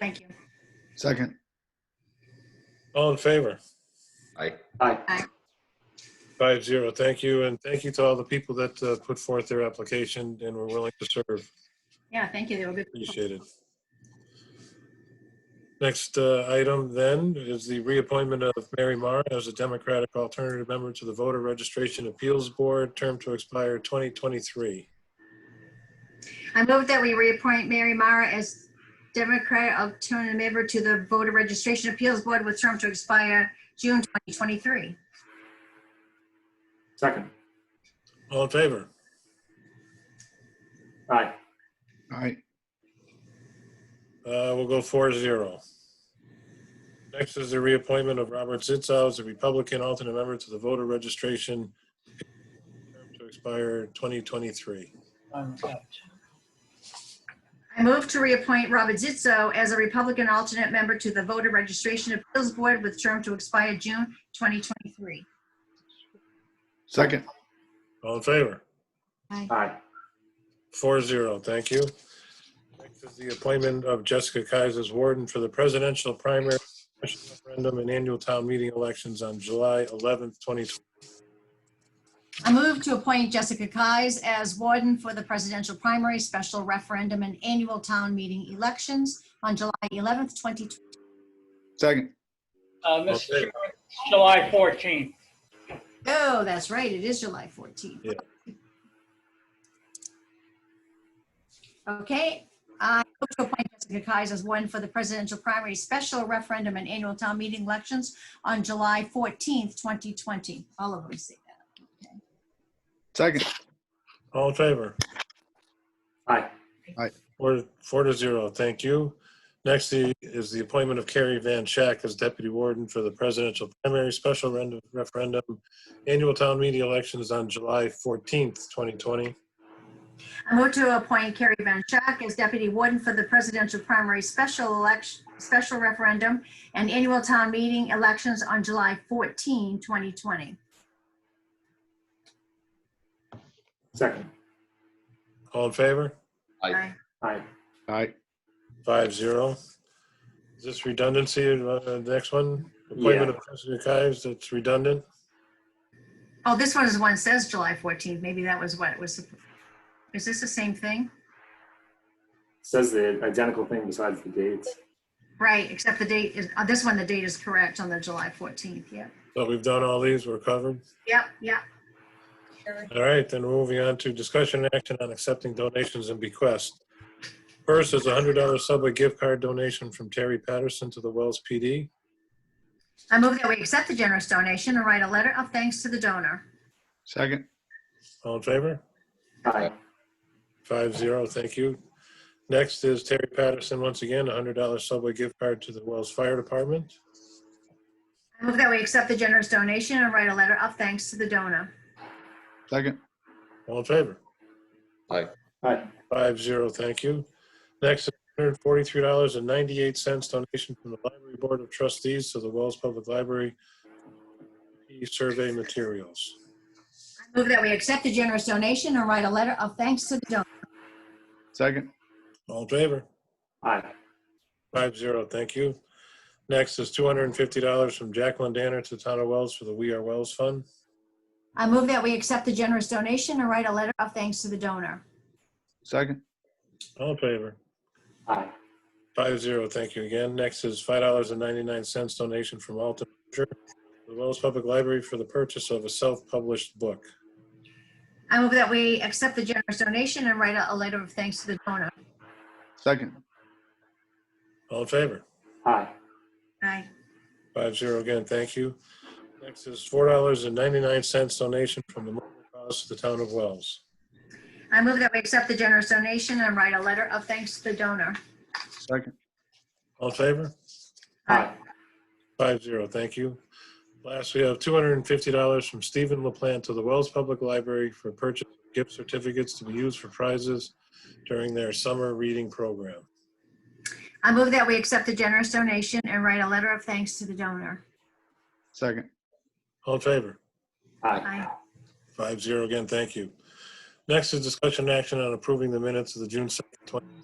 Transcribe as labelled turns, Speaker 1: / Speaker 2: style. Speaker 1: Thank you.
Speaker 2: Second.
Speaker 3: All in favor?
Speaker 4: Aye.
Speaker 3: Five zero. Thank you. And thank you to all the people that uh, put forth their application and were willing to serve.
Speaker 1: Yeah, thank you. They were good.
Speaker 3: Appreciate it. Next uh, item then is the reappointment of Mary Marr as a Democratic alternative member to the Voter Registration Appeals Board, term to expire 2023.
Speaker 1: I move that we reappoint Mary Mara as Democratic alternative member to the Voter Registration Appeals Board with term to expire June 2023.
Speaker 5: Second.
Speaker 3: All in favor?
Speaker 5: Aye.
Speaker 2: Aye.
Speaker 3: Uh, We'll go four zero. Next is the reappointment of Robert Zitzow as a Republican alternate member to the voter registration term to expire 2023.
Speaker 1: I move to reappoint Robert Zitzo as a Republican alternate member to the Voter Registration Appeals Board with term to expire June 2023.
Speaker 2: Second.
Speaker 3: All in favor?
Speaker 5: Aye.
Speaker 3: Four zero, thank you. Next is the appointment of Jessica Kaiser as warden for the presidential primary special referendum and annual town meeting elections on July 11th, 2020.
Speaker 1: I move to appoint Jessica Kies as warden for the presidential primary, special referendum, and annual town meeting elections on July 11th, 2020.
Speaker 2: Second.
Speaker 6: Uh, Mr.
Speaker 3: Okay.
Speaker 6: Chairman, it's July 14th.
Speaker 1: Oh, that's right, it is July 14th.
Speaker 3: Yeah.
Speaker 1: Okay, uh, I move to appoint Jessica Kies as warden for the presidential primary, special referendum, and annual town meeting elections on July 14th, 2020. All of them say that.
Speaker 2: Second.
Speaker 3: All in favor?
Speaker 5: Aye.
Speaker 3: Four, four to zero, thank you. Next the- is the appointment of Carrie Van Schack as Deputy Warden for the Presidential Primary Special Rend- Referendum Annual Town Meeting Elections on July 14th, 2020.
Speaker 1: I move to appoint Carrie Van Schack as deputy warden for the presidential primary special election, special referendum and annual town meeting elections on July 14, 2020.
Speaker 5: Second.
Speaker 3: All in favor?
Speaker 4: Aye.
Speaker 5: Aye.
Speaker 2: Aye.
Speaker 3: Five zero. Is this redundancy, uh, the next one?
Speaker 5: Yeah.
Speaker 3: Appointment of President Kives, that's redundant?
Speaker 1: Oh, this one is one says July 14th. Maybe that was what was, is this the same thing?
Speaker 5: Says the identical thing besides the dates.
Speaker 1: Right, except the date is, on this one, the date is correct on the July 14th. Yep,
Speaker 3: So we've done all these, we're covered.
Speaker 1: yep, yep.
Speaker 3: All right, then moving on to discussion and action on accepting donations and bequests. First is a hundred dollar Subway gift card donation from Terry Patterson to the Wells PD.
Speaker 1: I move that we accept the generous donation and write a letter of thanks to the donor.
Speaker 2: Second.
Speaker 3: All in favor?
Speaker 5: Aye.
Speaker 3: Five zero, thank you. Next is Terry Patterson, once again, a hundred dollar Subway gift card to the Wells Fire Department.
Speaker 1: I move that we accept the generous donation and write a letter of thanks to the donor.
Speaker 2: Second.
Speaker 3: All in favor?
Speaker 5: Aye.
Speaker 3: Five zero, thank you. Next, $143.98 donation from the Library Board of Trustees to the Wells Public Library survey materials.
Speaker 1: I Move that we accept the generous donation and write a letter of thanks to the donor.
Speaker 2: Second.
Speaker 3: All in favor?
Speaker 5: Aye.
Speaker 3: Five zero, thank you. Next is $250 from Jacqueline Danner to the Town of Wells for the We Are Wells Fund.
Speaker 1: I move that we accept the generous donation and write a letter of thanks to the donor.
Speaker 2: Second.
Speaker 3: All in favor?
Speaker 5: Aye.
Speaker 3: Five zero, thank you again. Next is five dollars and ninety-nine cents donation from Alton, Berger, to the Wells Public Library for the purchase of a self-published book.
Speaker 1: I move that we accept the generous donation and write a a letter of thanks to the donor.
Speaker 2: Second.
Speaker 3: All in favor?
Speaker 5: Aye.
Speaker 1: Aye.
Speaker 3: Five zero again, thank you. Next is four dollars and ninety-nine cents donation from the Mobile Cause to the Town of Wells.
Speaker 1: I move that we accept the generous donation and write a letter of thanks to the donor.
Speaker 2: Second.
Speaker 3: All in favor?
Speaker 5: Aye.
Speaker 3: Five zero, thank you. Last, we have two hundred and fifty dollars from Stephen LaPlante to the Wells Public Library for purchase of gift certificates to be used for prizes during their summer reading program.
Speaker 1: I move that we accept the generous donation and write a letter of thanks to the donor.
Speaker 2: Second.
Speaker 3: All in favor?
Speaker 5: Aye.
Speaker 1: Aye.
Speaker 3: Five zero again, thank you. Next is discussion and action on approving the minutes of the June 2nd, 2020